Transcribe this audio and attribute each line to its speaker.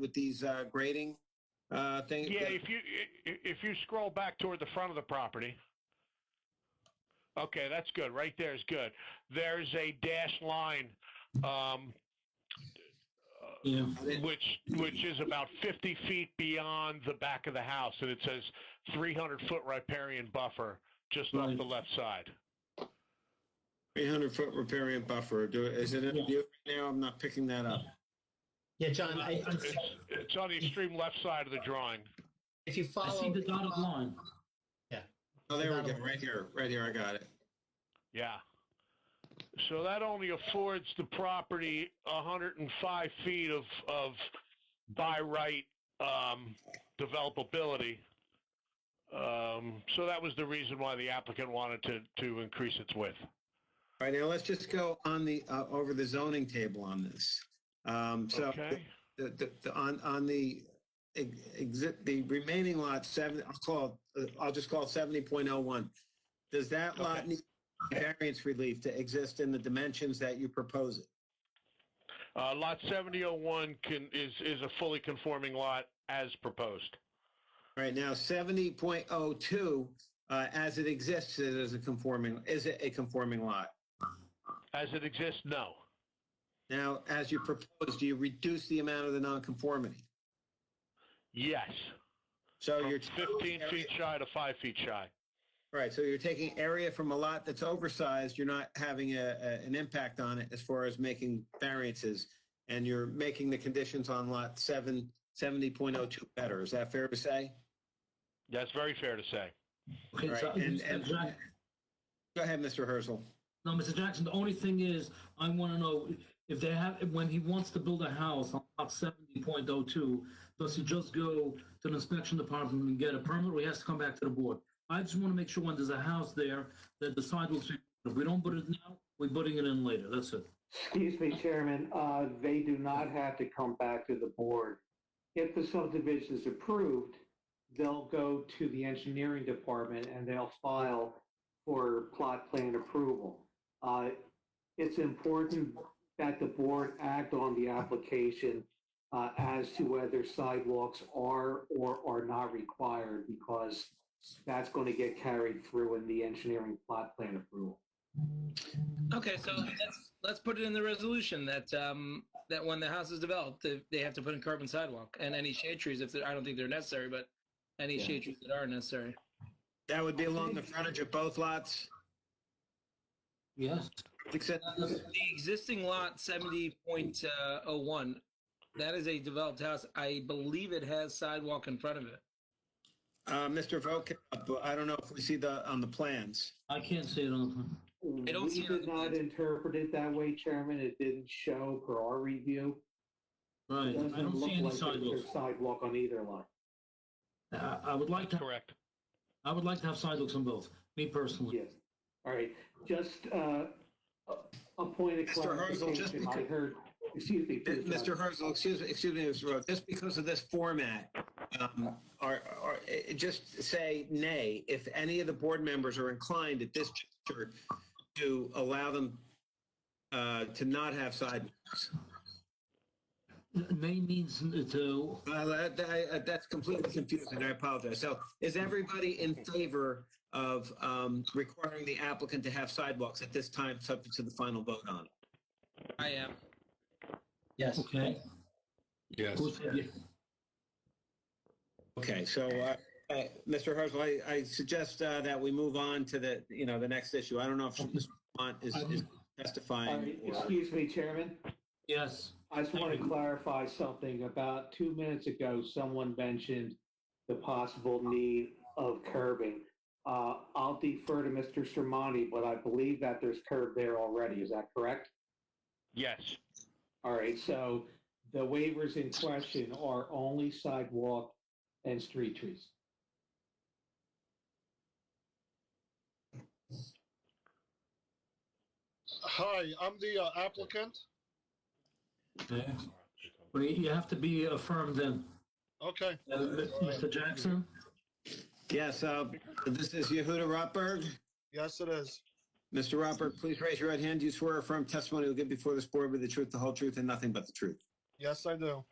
Speaker 1: with these uh, grading uh, things?
Speaker 2: Yeah, if you, i- i- if you scroll back toward the front of the property. Okay, that's good. Right there is good. There's a dashed line, um,
Speaker 3: Yeah.
Speaker 2: which, which is about 50 feet beyond the back of the house. And it says 300 foot riparian buffer just off
Speaker 3: Right.
Speaker 2: the left side.
Speaker 1: 300 foot riparian buffer, do, is it in
Speaker 3: Yeah.
Speaker 1: view right now? I'm not picking that up.
Speaker 4: Yeah, John, I, I-
Speaker 2: It's, it's on the extreme left side of the drawing.
Speaker 4: if you
Speaker 3: I
Speaker 4: follow.
Speaker 3: see the dotted line.
Speaker 1: Oh, there we go, right here, right here, I got it.
Speaker 2: Yeah. So that only affords the property 105 feet of, of by right um, developability. Um, so that was the reason why the applicant wanted to, to increase its width.
Speaker 1: All right, now let's just go on the, uh, over the zoning table on this. Um, So
Speaker 2: Okay.
Speaker 1: the, the, the- on, on the exit, the remaining lot seven, I'll call, it- uh, I'll just call it seventy point oh one. Does that lot
Speaker 2: Okay.
Speaker 1: need variance relief to exist in the dimensions that you propose it?
Speaker 2: Uh, lot 7001 can, is, is a fully conforming lot as proposed.
Speaker 1: All right, now seventy point oh two, uh, as it exists, it is a conforming, is it a conforming lot?
Speaker 2: As it exists, no.
Speaker 1: Now, as you propose, do you reduce the amount of the nonconformity?
Speaker 2: Yes.
Speaker 1: So
Speaker 2: From
Speaker 1: you're.
Speaker 2: 15 feet shy to 5 feet shy.
Speaker 1: Right, so you're taking area from a lot that's oversized, you're not having a, a- an impact on it as far as making variances, and you're making the conditions on lot seven, seventy point oh two better, is that fair to say?
Speaker 2: That's very fair to say.
Speaker 3: Okay, so,
Speaker 1: Right, and- and-
Speaker 3: Mr. Jack-
Speaker 1: Go ahead, Mr. Herzl.
Speaker 3: no, Mr. Jackson, the only thing is, I want to know if they have, when he wants to build a house on lot seventy point oh two, does he just go to the inspection department and get a permit, or he has to come back to the board? I just want to make sure when there's a house there, that the sidewalks, if we don't put it now, we're putting it in later, that's it.
Speaker 5: Excuse me, Chairman, uh, they do not have to come back to the board. If the subdivision is approved, they'll go to the engineering department and they'll file for plot plan approval. Uh, It's important that the board act on the application uh, as to whether sidewalks are or are not required because that's going to get carried through in the engineering plot plan approval.
Speaker 6: Okay, so let's let's put it in the resolution that um that when the house is developed, they, they have to put in curb and sidewalk and any shade trees if they're, I don't think they're necessary, but any
Speaker 5: Yeah.
Speaker 6: shade trees that are necessary.
Speaker 1: That would be along the frontage of both lots,
Speaker 3: Yes.
Speaker 1: except,
Speaker 6: The existing lot seventy point oh one, that is a developed house. I believe it has sidewalk in front of it.
Speaker 1: uh, Mr. Vogt, I don't know if we see the, on the plans.
Speaker 3: I can't see it on the plan.
Speaker 6: I don't see
Speaker 5: Mm, We
Speaker 6: it on
Speaker 5: did
Speaker 6: the
Speaker 5: not
Speaker 6: plans.
Speaker 5: interpret it that way, Chairman. It didn't show per our review. It
Speaker 3: Right,
Speaker 5: doesn't
Speaker 3: I don't
Speaker 5: look
Speaker 3: see any
Speaker 5: like there's a
Speaker 3: sidewalks.
Speaker 5: Sidewalk on either line.
Speaker 3: I, I would like to,
Speaker 2: Correct.
Speaker 3: I would like to have sidewalks on both, me personally.
Speaker 5: Yes. All right, just uh, a a point of
Speaker 1: Mr. Herzl, just
Speaker 5: clarification. I
Speaker 1: because-
Speaker 5: heard, excuse me. please, John.
Speaker 1: Mr. Uh, Herzl, excuse, excuse me, Mr. Rhodes, just because of this format, um, or, or eh, just say nay, if any of the board members are inclined at this juncture to allow them uh, to not have side,
Speaker 3: May means to,
Speaker 1: Uh, that- that- I- that's completely confusing, I apologize. So is everybody in favor of um, requiring the applicant to have sidewalks at this time, subject to the final vote on? it?
Speaker 6: I am.
Speaker 4: Yes.
Speaker 3: okay?
Speaker 7: Yes.
Speaker 3: Who said yes?
Speaker 1: Okay, so, uh, uh, Mr. Herzl, I, I suggest uh, that we move on to the, you know, the next issue. I don't know if Mr. Mont is is
Speaker 5: All
Speaker 1: testifying.
Speaker 5: right, excuse me, Chairman.
Speaker 3: Yes,
Speaker 5: I just want to clarify something. About two minutes ago, someone mentioned the possible need of curbing. Uh, I'll defer to Mr. Sermani, but I believe that there's curb there already. Is that correct?
Speaker 2: Yes.
Speaker 5: All right, so the waivers in question are only sidewalk and street trees.
Speaker 8: Hi, I'm the uh, applicant.
Speaker 3: yeah. Well, you you have to be affirmed then.
Speaker 8: Okay.
Speaker 3: Uh, Mr. Jackson?
Speaker 1: Yes, uh, this is Yehuda Rotberg.
Speaker 8: Yes, it is.
Speaker 1: Mr. Rotberg, please raise your right hand. Do you swear or affirm testimony you'll give before this board with the truth, the whole truth, and nothing but the truth?
Speaker 8: Yes, I do.